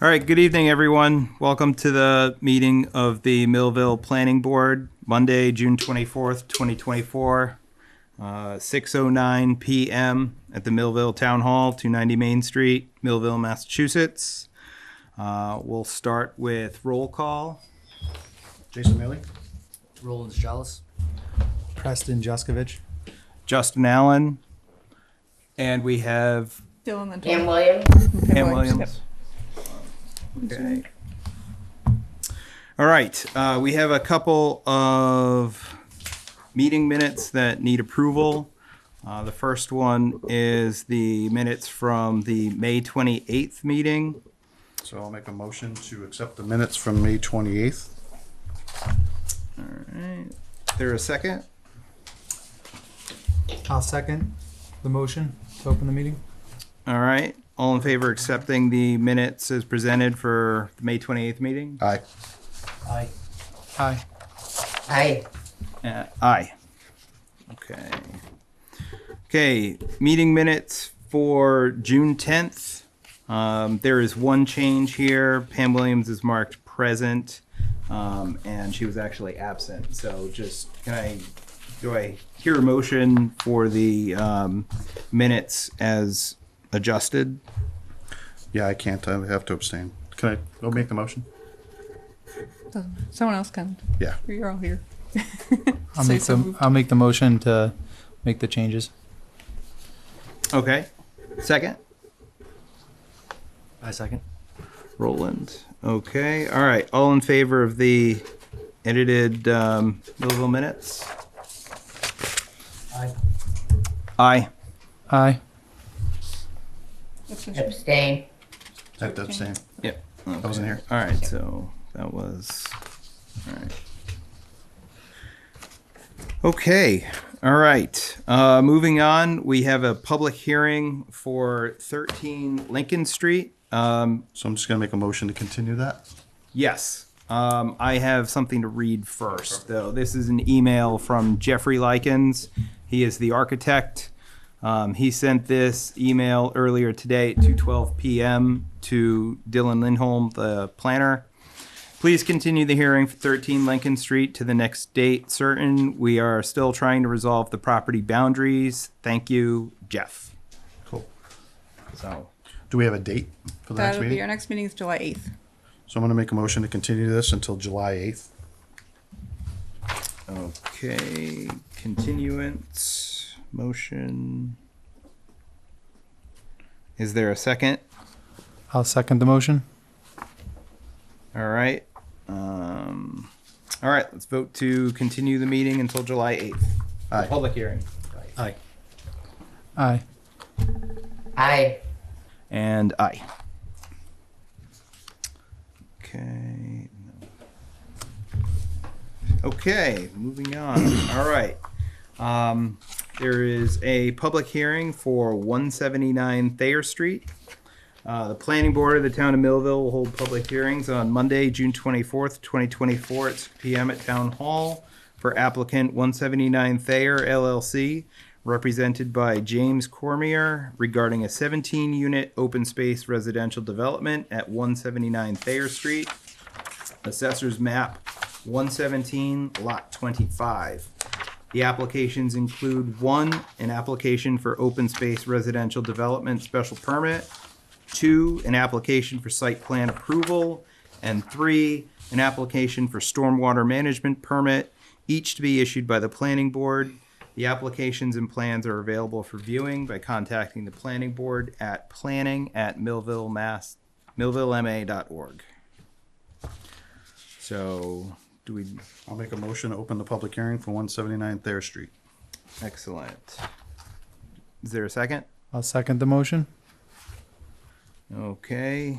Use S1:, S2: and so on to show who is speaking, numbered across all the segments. S1: All right, good evening, everyone. Welcome to the meeting of the Millville Planning Board, Monday, June 24th, 2024, uh, 6:09 PM at the Millville Town Hall, 290 Main Street, Millville, Massachusetts. Uh, We'll start with roll call.
S2: Jason Bailey,
S3: Roland Chalice.
S2: Preston Juskovic,
S1: Justin Allen. And we have
S4: Dylan and
S5: Pam Williams.
S1: Pam Williams. Okay. All right, uh, we have a couple of meeting minutes that need approval. Uh, the first one is the minutes from the May twenty-eighth meeting.
S2: so I'll make a motion to accept the minutes from May twenty-eighth.
S1: There a second?
S6: I'll second the motion to open the meeting.
S1: All right, all in favor accepting the minutes as presented for the May twenty-eighth meeting?
S2: Aye.
S3: Aye.
S6: Aye.
S5: Aye.
S1: Uh, aye. Okay. Okay, meeting minutes for June tenth. Um, there is one change here. Pam Williams is marked present, um, and she was actually absent. So just, can I, do I hear a motion for the, um, minutes as adjusted?
S2: Yeah, I can't, I have to abstain. Can I, go make the motion?
S4: Someone else can.
S2: Yeah.
S4: You're all here.
S6: I'll
S4: Say
S6: make
S4: so
S6: the,
S4: moved.
S6: I'll make the motion to make the changes.
S1: Okay, second?
S3: I second.
S1: Roland. Okay, all right. All in favor of the edited um, Millville minutes?
S3: Aye.
S1: Aye.
S6: Aye.
S4: That's just-
S5: Abstain.
S2: I have to abstain.
S1: Yep.
S2: I wasn't here.
S1: All right, so that was, all right. Okay, all right. Uh, moving on, we have a public hearing for 13 Lincoln Street. Um,
S2: So I'm just gonna make a motion to continue that.
S1: Yes. Um, I have something to read first, though. This is an email from Jeffrey Likens. He is the architect. Um, he sent this email earlier today at 2:12 p.m. to Dylan Lindholm, the planner. Please continue the hearing for 13 Lincoln Street to the next date certain. We are still trying to resolve the property boundaries. Thank you, Jeff.
S2: Cool.
S1: So,
S2: Do we have a date for the next
S4: That'll be, our
S2: meeting?
S4: next meeting is July eighth.
S2: So I'm gonna make a motion to continue this until July eighth.
S1: okay, continuance, motion. Is there a second?
S6: I'll second the motion.
S1: All right. Um, all right, let's vote to continue the meeting until July 8th. The
S2: Aye.
S1: Public hearing.
S3: Aye.
S6: Aye.
S5: Aye.
S1: And aye. Okay. Okay, moving on. All right. Um, there is a public hearing for 179 Thayer Street. Uh, the planning board of the town of Millville will hold public hearings on Monday, June 24th, 2024 at 6 PM at Town Hall for applicant 179 Thayer LLC, represented by James Cormier regarding a 17-unit open space residential development at 179 Thayer Street. Assessor's map 117, lot 25. The applications include one, an application for open space residential development special permit, two, an application for site plan approval, and three, an application for stormwater management permit, each to be issued by the planning board. The applications and plans are available for viewing by contacting the planning board at planning at millville mass, millvillema.org. So, do we,
S2: I'll make a motion to open the public hearing for one seventy-nine Thayer Street.
S1: excellent. Is there a second?
S6: I'll second the motion.
S1: Okay,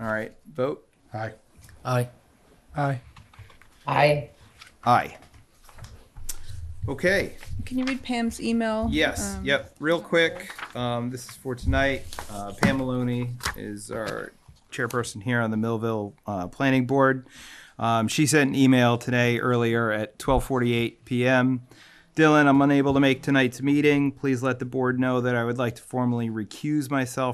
S1: all right, vote.
S2: Aye.
S3: Aye.
S6: Aye.
S5: Aye.
S1: Aye. Okay,
S4: Can you read Pam's email?
S1: yes,
S4: Um,
S1: yep, real quick, um, this is for tonight. Uh, Pam Maloney is our chairperson here on the Millville, uh, Planning Board. Um, she sent an email today earlier at twelve forty-eight PM. Dylan, I'm unable to make tonight's meeting. Please let the board know that I would like to formally recuse myself